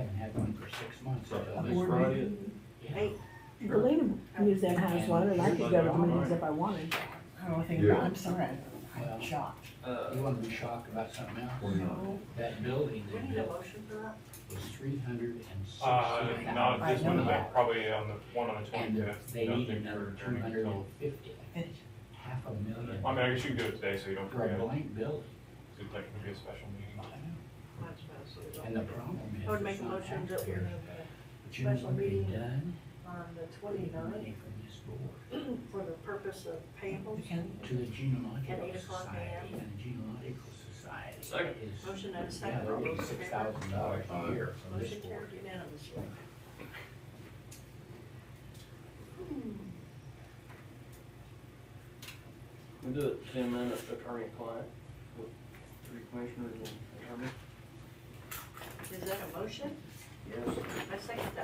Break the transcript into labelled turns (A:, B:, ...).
A: for six months.
B: Next Friday,
A: Yeah.
C: Hey, Delina used that house lot, and I could go to the meetings if I wanted.
D: I don't think, I'm sorry, I'm shocked.
A: You wanna be shocked about something else? That building they built
C: motion for that?
A: was three hundred and sixty
E: Uh,
A: thousand.
E: not Uh, this one,
D: I know.
E: but probably on the, one on the
A: And
E: twenty-fifth.
A: they need another two hundred and fifty, half a million
E: I mean, I guess you can do it today, so you don't
A: for a
E: forget, it's
A: blank building.
E: like, it'll be a special meeting.
A: And the problem is.
C: I would make
A: it's
C: a
A: not
C: motion
A: out
C: that we
A: there.
C: have
A: But you know
C: special
A: what they
C: meeting
A: done?
C: uh, on the
A: They need
C: twenty-ninth
A: money from this board
C: for the purpose of payables.
A: to the
C: At eight
A: genealogical
C: o'clock
A: society,
C: a.m.
A: and the genealogical society is.
F: Second.
C: Motion and a
A: Yeah,
C: second.
A: they're
C: All
A: getting
C: those in
A: six
C: favor?
A: thousand dollars a year from this
C: Motion
A: board.
C: carried unanimously.
F: We do it ten minutes attorney client with three commissioners and attorney.
C: Is that a motion?
F: Yes.
C: I second
D: Hmm.